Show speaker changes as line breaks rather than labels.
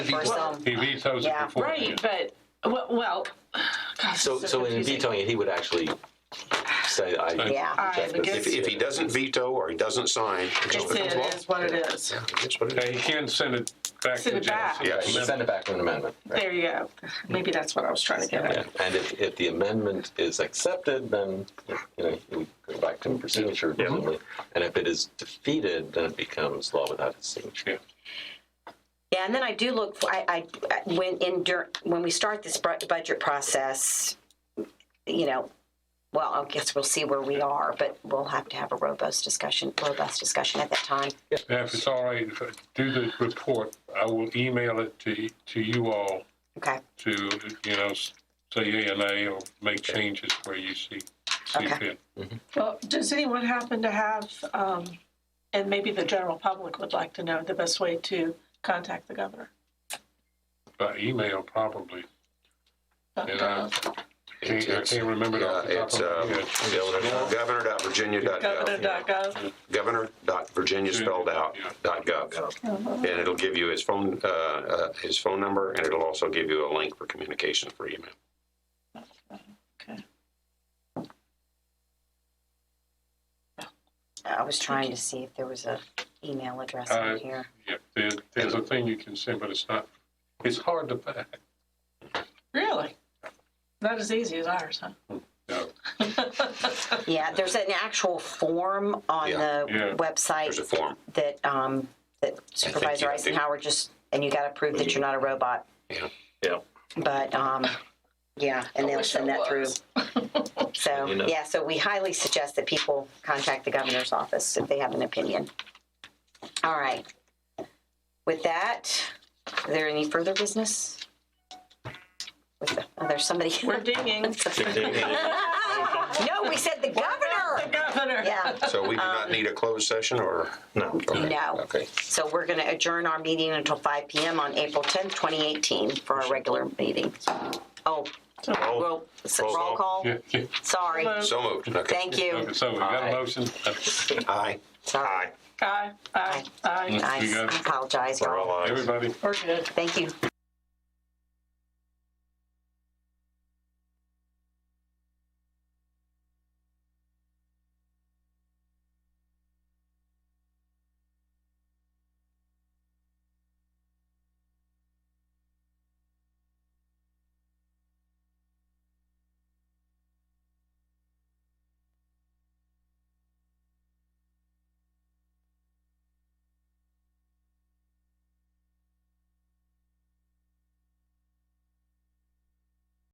for some.
He vetoes it
Yeah.
before.
Right, but, w- well, gosh,
So,
it's
so in
confusing.
vetoing it, he would actually say, I.
Yeah.
All right, but
If, if he doesn't veto or he doesn't sign, it just
It's,
becomes law.
it is what it is.
Yeah, that's what it
Yeah,
is.
he can send it back
Send
to
it back.
Genesis.
Yeah,
Right, you can Send it back to an amendment.
There you go. Maybe that's what I was trying to get
Yeah,
at.
And if, if the amendment is accepted, then, you know, we go back to him for signature presumably. And if it is defeated, then it becomes law without his signature.
Yeah.
Yeah, and then I do look, for- I, I, I- when in, dur- when we start this bru- budget process, you know, well, I guess we'll see where we are, but we'll have to have a robust discussion, robust discussion at that time.
And If it's all right, if I do the report, I will email it to, to you all
Okay,
to, you know, s- say yea or nay or make changes where you see, see
Okay.
fit.
Well, does anyone happen to have, um, and maybe the general public would like to know the best way to contact the governor?
By email probably. And I can't, I
It's-
can't remember it off the
Yeah,
top
it's,
of my
uh,
head.
governor.virginia.gov,
Governor.gov.
governor.virginia spelled out,
Yeah.
dot gov. And it'll give you his phone, uh, uh, his phone number, and it'll also give you a link for communication for email.
I was trying to see if there was a email address
Uh,
on here.
Yeah, there, there's a thing you can send, but it's not, it's hard to find.
Really? Not as easy as ours, huh?
No,
Yeah, there's an actual form on
Yeah.
the
Yeah.
website
There's a form.
that, um, that Supervisor
have to-
Eisenhower just, and you got to prove that you're not a robot.
Yeah.
Yeah.
But, um, yeah, and they'll send that through. So,
You know.
yeah, so we highly suggest that people contact the governor's office if they have an opinion. All right. With that, is there any further business? With the- Oh, there's somebody.
We're dinging.
No, we said the
The
governor.
governor.
Yeah.
So we do not need a closed session or?
No.
No.
Okay.
So we're going to adjourn our meeting until 5 PM on April 10th, 2018 for our regular meeting. Oh,
Oh,
roll, s- roll call?
yeah, yeah.
Sorry.
so moved. Okay.
Thank you.
Okay, so we got a motion. uh,
Aye.
Sorry.
Aye, aye, aye.
I
You got it.
Mm.
apologize,
We're all
y'all.
ayes.
Everybody.
We're good.
Thank you.